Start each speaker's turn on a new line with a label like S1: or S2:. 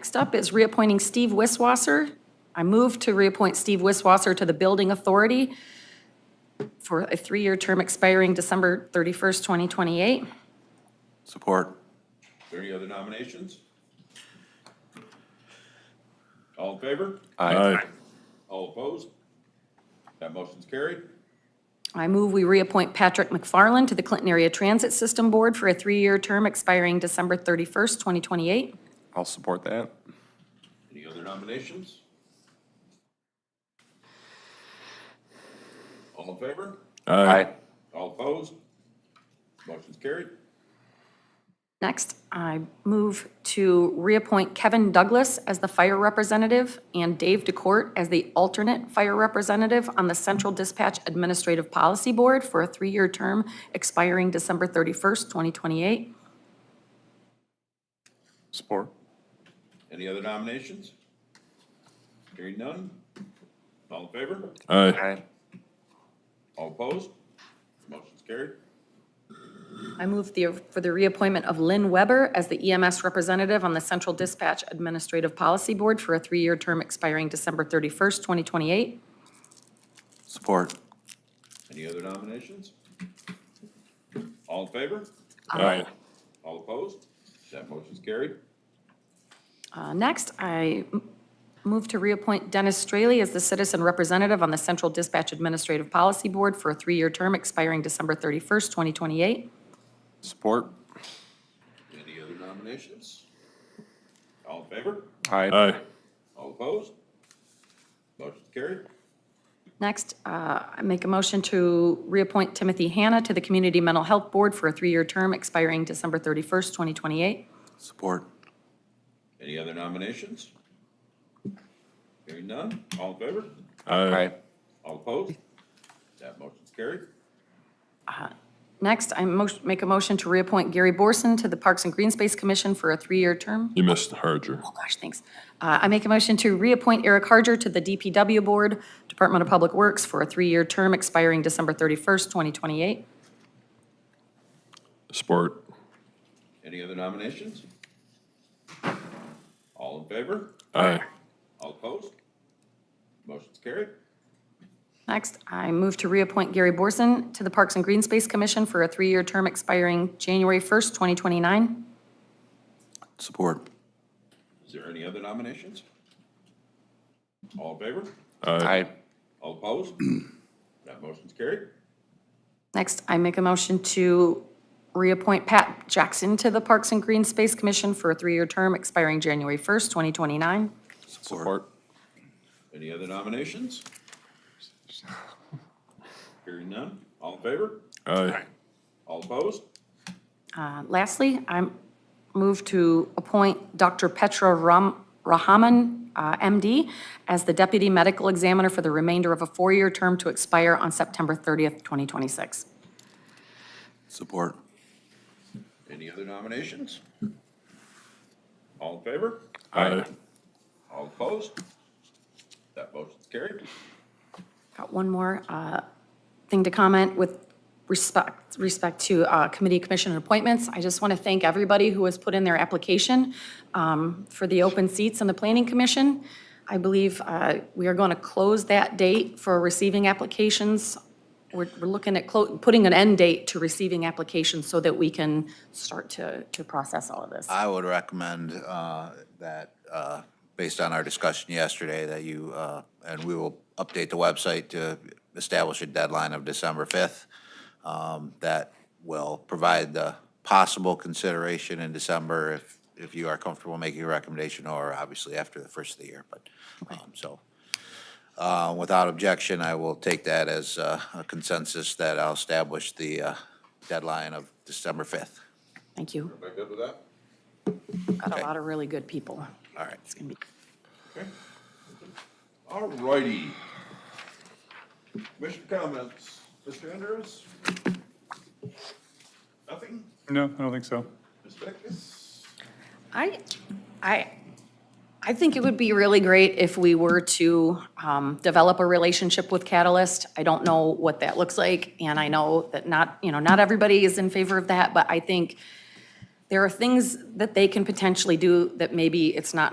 S1: Next up is reappointing Steve Wisswasser. I move to reappoint Steve Wisswasser to the Building Authority for a three-year term expiring December 31st, 2028.
S2: Support.
S3: Is there any other nominations? All in favor?
S2: Aye.
S3: All opposed? That motion's carried.
S1: I move we reappoint Patrick McFarland to the Clinton Area Transit System Board for a three-year term expiring December 31st, 2028.
S2: I'll support that.
S3: Any other nominations? All in favor?
S2: Aye.
S3: All opposed? Motion's carried.
S1: Next, I move to reappoint Kevin Douglas as the fire representative and Dave DeCourt as the alternate fire representative on the Central Dispatch Administrative Policy Board for a three-year term expiring December 31st, 2028.
S2: Support.
S3: Any other nominations? Hearing none? All in favor?
S2: Aye.
S3: All opposed? Motion's carried.
S1: I move the- for the reappointment of Lynn Weber as the EMS representative on the Central Dispatch Administrative Policy Board for a three-year term expiring December 31st, 2028.
S2: Support.
S3: Any other nominations? All in favor?
S2: Aye.
S3: All opposed? That motion's carried.
S1: Uh, Next, I m- move to reappoint Dennis Straley as the citizen representative on the Central Dispatch Administrative Policy Board for a three-year term expiring December 31st, 2028.
S2: Support.
S3: Any other nominations? All in favor?
S2: Aye.
S3: All opposed? Motion's carried.
S1: Next, uh, I make a motion to reappoint Timothy Hanna to the Community Mental Health Board for a three-year term expiring December 31st, 2028.
S2: Support.
S3: Any other nominations? Hearing none, all in favor?
S2: Aye.
S3: All opposed? That motion's carried.
S1: Next, I mo- make a motion to reappoint Gary Borson to the Parks and Green Space Commission for a three-year term.
S4: You missed Harger.
S1: Oh, gosh, thanks. Uh, I make a motion to reappoint Eric Harger to the DPW Board, Department of Public Works, for a three-year term expiring December 31st, 2028.
S4: Support.
S3: Any other nominations? All in favor?
S4: Aye.
S3: All opposed? Motion's carried.
S1: Next, I move to reappoint Gary Borson to the Parks and Green Space Commission for a three-year term expiring January 1st, 2029.
S2: Support.
S3: Is there any other nominations? All in favor?
S2: Aye.
S3: All opposed? That motion's carried.
S1: Next, I make a motion to reappoint Pat Jackson to the Parks and Green Space Commission for a three-year term expiring January 1st, 2029.
S2: Support.
S3: Any other nominations? Hearing none, all in favor?
S4: Aye.
S3: All opposed?
S1: Uh, Lastly, I move to appoint Dr. Petra Ram- Rahaman, uh, MD, as the Deputy Medical Examiner for the remainder of a four-year term to expire on September 30th, 2026.
S2: Support.
S3: Any other nominations? All in favor?
S4: Aye.
S3: All opposed? That motion's carried.
S1: Got one more uh, thing to comment with respect, respect to uh, committee commission appointments. I just want to thank everybody who has put in their application um, for the open seats on the planning commission. I believe uh, we are going to close that date for receiving applications. We're we're looking at clo- putting an end date to receiving applications so that we can start to, to process all of this.
S5: I would recommend uh, that, uh, based on our discussion yesterday, that you, uh, and we will update the website to establish a deadline of December 5th. um, That will provide the possible consideration in December if, if you are comfortable making a recommendation, or obviously after the first of the year, but, um, so. uh, Without objection, I will take that as uh, a consensus that I'll establish the uh, deadline of December 5th.
S1: Thank you.
S3: Am I good with that?
S1: Got a
S5: Okay.
S1: lot of really good people.
S5: All right.
S1: It's going to be.
S3: All righty. Commission comments. Mr. Andrews? Nothing?
S6: No, I don't think so.
S3: Ms. Beckus?
S1: I, I, I think it would be really great if we were to um, develop a relationship with Catalyst. I don't know what that looks like, and I know that not, you know, not everybody is in favor of that, but I think there are things that they can potentially do that maybe it's not